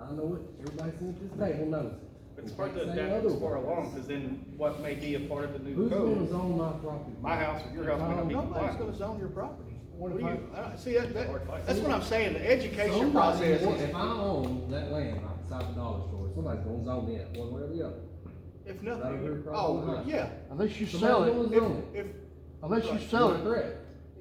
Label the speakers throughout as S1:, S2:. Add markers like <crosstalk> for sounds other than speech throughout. S1: I know it, everybody sitting at this table knows it.
S2: It's
S1: You
S2: hard to
S1: can't say
S2: adapt this far
S1: otherwise.
S2: along, because then what may be a part of the new
S1: Who's gonna
S2: code?
S1: zone my property?
S2: My house or your house may not be
S3: Nobody's
S2: compliant.
S3: gonna zone your property.
S1: What
S3: What do
S1: if
S3: you, uh, see,
S2: Hard
S3: that, that,
S2: fight.
S3: that's what I'm saying, the education
S1: Somebody,
S3: process is,
S1: if I own that land outside the dollar store, somebody's gonna zone it one way or the other.
S3: if
S1: That'll be a
S3: nothing,
S1: problem
S3: oh,
S1: with
S3: yeah.
S4: Unless you sell
S1: Somebody's
S4: it,
S1: gonna
S3: If,
S1: zone it.
S3: if,
S4: unless you
S3: Right.
S4: sell
S1: You're
S4: it,
S1: Correct.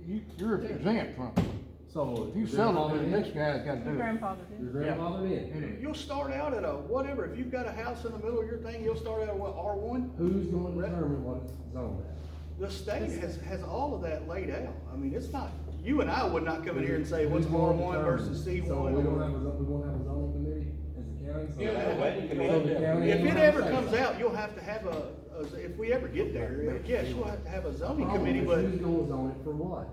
S4: you, you're exempt from it.
S1: So.
S4: If you sell it, then the next guy's gotta do it.
S5: Grandfather
S1: Your
S5: did.
S1: grandfather did.
S4: It is.
S3: you'll start out at a, whatever, if you've got a house in the middle of your thing, you'll start out at what, R one?
S1: Who's gonna determine what it's zoned at?
S3: The state has, has all of that laid out. I mean, it's not, you and I would not come in here and say, what's
S1: Who's gonna
S3: R one versus C
S1: determine? So we don't have
S3: one?
S1: a, zo- we won't have a zoning committee as a county, so.
S2: Yeah,
S1: that-
S2: yeah,
S1: so the
S2: yeah.
S1: county
S3: If
S1: ain't
S3: it
S1: gonna
S3: ever
S1: say
S3: comes
S1: something.
S3: out, you'll have to have a, a- if we ever get there, yes, you'll have to have a zoning
S1: Problem
S3: committee,
S1: is
S3: but
S1: Who's gonna zone it for what?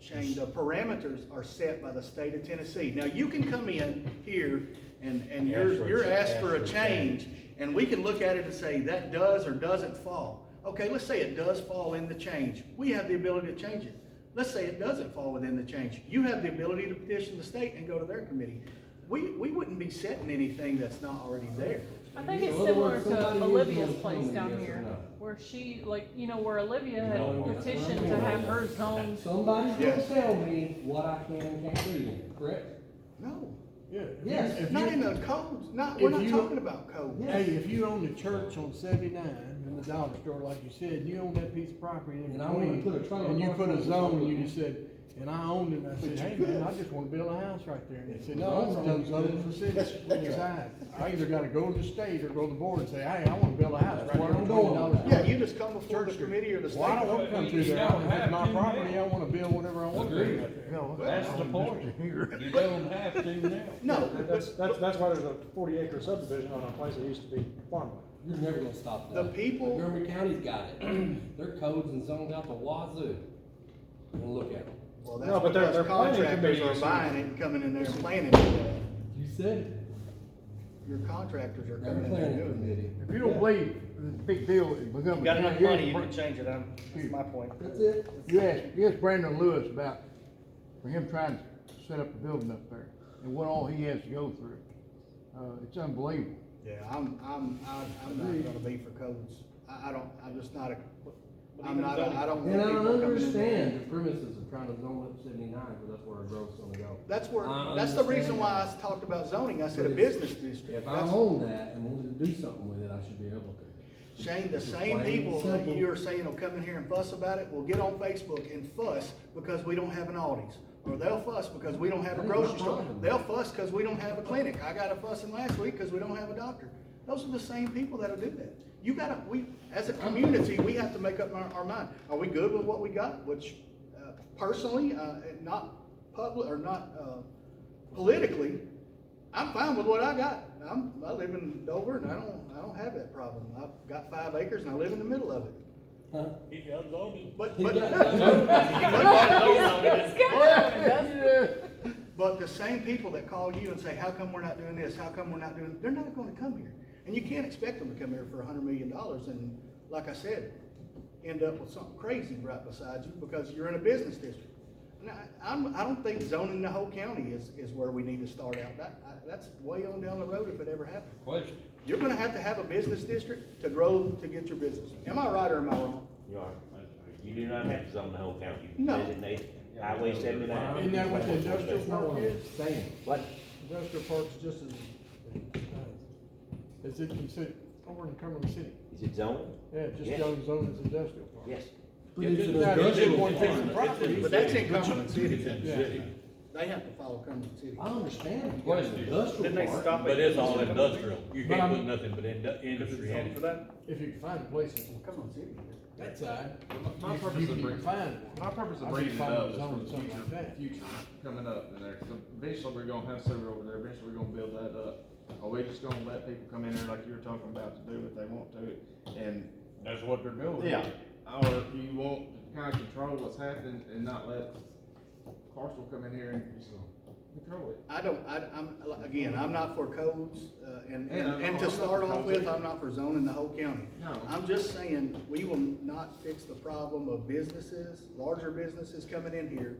S3: Shane, the parameters are set by the state of Tennessee. Now, you can come in here and, and you're, you're asked for a change, and we can look at it and say, that does or doesn't fall. Okay, let's say it does fall in the change. We have the ability to change it. Let's say it doesn't fall within the change. You have the ability to petition the state and go to their committee. We, we wouldn't be setting anything that's not already there.
S5: I think it's similar to Olivia's place down here, where she, like, you know, where Olivia had petitioned to have her
S1: <laughs>
S5: zone. <laughs>
S1: Somebody's gonna
S3: Yes.
S1: tell me what I can and can't do, in it, correct?
S3: No,
S6: Yeah.
S1: Yes.
S6: If
S3: not in
S6: you,
S3: the codes, not, we're
S6: If
S3: not
S6: you-
S3: talking about codes.
S1: Yeah.
S6: hey, if you own the church on seventy-nine and the dollar store, like you said, you own that piece of property in
S1: And I wanna
S6: between,
S1: put a trailer
S6: And you
S1: park
S6: put
S1: on
S6: a
S1: it.
S6: zone, and you just said, and I owned it, and I said,
S3: you
S6: hey
S3: could.
S6: man, I just wanna build a house right there. And they said,
S1: No,
S6: no, it's
S1: no,
S6: done
S1: you
S6: zone
S4: <laughs>
S6: for
S1: couldn't.
S6: city, we decide. I either gotta go to the state or go to the board and say, hey, I wanna build a house right
S1: where
S6: here
S1: I'm
S6: on
S1: going.
S6: twenty dollars.
S3: Yeah, you just come before the
S6: Church Street.
S3: committee or the state.
S6: Well, I don't wanna come through there, if it's my property, I wanna build whatever I want to.
S7: Agreed.
S6: right there.
S4: No,
S7: That's the point. You don't have to now.
S3: No,
S8: That-
S3: but
S8: That's, that's, that's why there's a forty acre subdivision on a place that used to be farmland.
S1: You're never gonna stop
S3: The
S1: that.
S3: people-
S1: Montgomery County's got it. <clears throat> Their codes and zones out the wazoo. And look at them.
S3: Well,
S8: No,
S3: that's
S8: but they're-
S3: because
S8: they're planning
S3: contractors are
S8: committees.
S3: buying it and coming in there and planning it.
S1: You said it.
S3: Your contractors are
S1: They're
S3: coming in there
S1: planning
S3: doing it.
S1: committee.
S4: If you don't believe the big deal is becoming.
S2: You got enough
S4: here's
S2: money, you
S4: Bra-
S2: can change it, I'm, that's my point.
S1: That's it.
S4: You asked, you asked Brandon Lewis about, for him trying to set up a building up there and what all he has to go through. Uh, it's unbelievable.
S3: Yeah, I'm, I'm, I- I'm not gonna be for codes. I, I don't, I'm just not a, I'm not, a- I don't
S1: And
S3: want
S1: I
S3: people coming in there.
S1: understand the premises of trying to zone up seventy-nine, because that's where our growth's gonna go.
S3: That's where,
S1: I
S3: that's the reason
S1: understand
S3: why
S1: that.
S3: I talked about zoning. I said a
S1: But it's-
S3: business district.
S1: If I
S3: That's-
S1: own that and wanted to do something with it, I should be able to.
S3: Shane, the
S1: It's
S3: same
S1: plain and
S3: people that
S1: simple.
S3: you're saying will come in here and fuss about it will get on Facebook and fuss because we don't have an Aldi's. Or they'll fuss because we don't have
S1: That
S3: a
S1: ain't my
S3: grocery store.
S1: problem.
S3: They'll fuss because we don't have a clinic. I got a fussing last week because we don't have a doctor. Those are the same people that'll do that. You gotta, we, as a community, we have to make up our, our mind. Are we good with what we got? Which, uh, personally, uh, and not public, or not, uh, politically, I'm fine with what I got. I'm, I live in Dover and I don't, I don't have that problem. I've got five acres and I live in the middle of it.
S1: Huh?
S3: But,
S1: He
S3: but,
S1: got-
S3: <laughs> but the same people that call you and say, how come we're not doing this? How come we're not doing, they're not gonna come here. And you can't expect them to come here for a hundred million dollars and, like I said, end up with something crazy right beside you because you're in a business district. And I, I'm, I don't think zoning the whole county is, is where we need to start out. That, I- that's way on down the road if it ever happens.
S7: Question.
S3: You're gonna have to have a business district to grow, to get your business. Am I right or am I wrong?
S9: You are, you do not have to zone the whole county, you
S3: No.
S9: designate highway seventy-nine.
S6: Isn't that what the industrial
S1: That's not what I'm saying.
S9: What?
S6: Industrial parks just as, as it considered, over in Cumberland City.
S9: Is it zoned?
S6: Yeah, just
S9: Yes.
S6: zone zone as industrial park.
S9: Yes.
S1: But it's an
S6: Now, they just
S1: industrial
S6: want to take
S1: park.
S6: some property.
S3: But that's in Cumberland City.
S6: Yeah.
S3: They have to follow Cumberland City.
S1: I understand you got an
S2: Then
S1: industrial
S2: they
S1: park.
S2: stop it.
S7: But it's all industrial. You
S6: But
S7: can't
S6: I'm-
S7: put nothing but indu-
S2: Because it's
S7: industry in
S2: zoned for
S7: it.
S2: that?
S6: If you can find a place that's
S3: Cumberland City.
S6: that side.
S10: My
S6: you-
S10: purpose
S6: you
S10: of
S6: can
S10: bringing-
S6: Find one.
S10: My purpose
S6: I'd
S10: of
S6: be
S10: bringing it
S6: fine
S10: up
S6: with
S10: is for
S6: zoning
S10: the
S6: something like
S10: future,
S6: that.
S10: future coming up in there, 'cause eventually we're gonna have sewer over there, eventually we're gonna build that up. Are we just gonna let people come in there like you were talking about to do what they want to and?
S7: That's what they're doing.
S10: Or you want to kinda control what's happening and not let Carson come in here and just control it?
S3: I don't, I, I'm, again, I'm not for codes, uh, and,
S10: Yeah,
S3: and
S10: no,
S3: and
S10: I'm
S3: to
S10: not
S3: start
S10: for
S3: off
S10: codes
S3: with,
S10: either.
S3: I'm not for zoning the whole county.
S10: No.
S3: I'm just saying, we will not fix the problem of businesses, larger businesses coming in here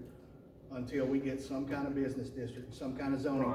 S3: until we get some kind of business district, some kind of zoning